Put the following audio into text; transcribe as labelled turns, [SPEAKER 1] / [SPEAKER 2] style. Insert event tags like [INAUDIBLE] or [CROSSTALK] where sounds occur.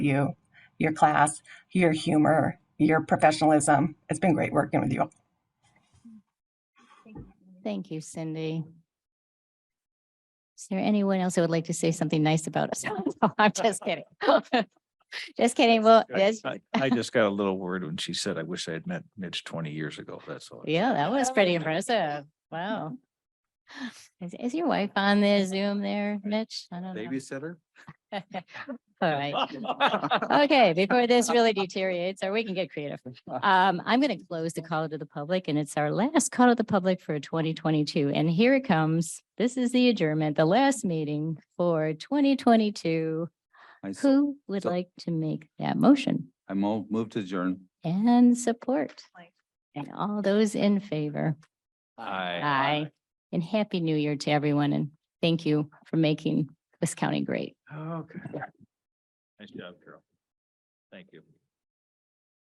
[SPEAKER 1] you, your class, your humor, your professionalism. It's been great working with you.
[SPEAKER 2] Thank you, Cindy. Is there anyone else who would like to say something nice about us? [LAUGHS] No, I'm just kidding. [LAUGHS] Just kidding. Well,
[SPEAKER 3] I-
[SPEAKER 2] yes,
[SPEAKER 3] I I just got a little word when she said, I wish I had met Mitch twenty years ago. That's all.
[SPEAKER 2] yeah, that was pretty impressive. Wow. Is, is your wife on the Zoom there, Mitch? I [LAUGHS] don't know.
[SPEAKER 3] Babysitter?
[SPEAKER 2] All
[SPEAKER 3] [LAUGHS]
[SPEAKER 2] right. Okay, before this
[SPEAKER 4] [LAUGHS]
[SPEAKER 2] really deteriorates, or we can get creative. Um, I'm going to close the call to the public and it's our last call to the public for twenty twenty-two. And here it comes. This is the adjournment, the last meeting for twenty twenty-two.
[SPEAKER 4] I s-
[SPEAKER 2] Who would
[SPEAKER 4] so-
[SPEAKER 2] like to make that motion
[SPEAKER 4] I mo- move to adjourn.
[SPEAKER 2] and support? And all those in favor?
[SPEAKER 3] Hi.
[SPEAKER 2] And happy new year to everyone and thank you for making this county great.
[SPEAKER 3] Okay. Nice job, Carol. Thank you.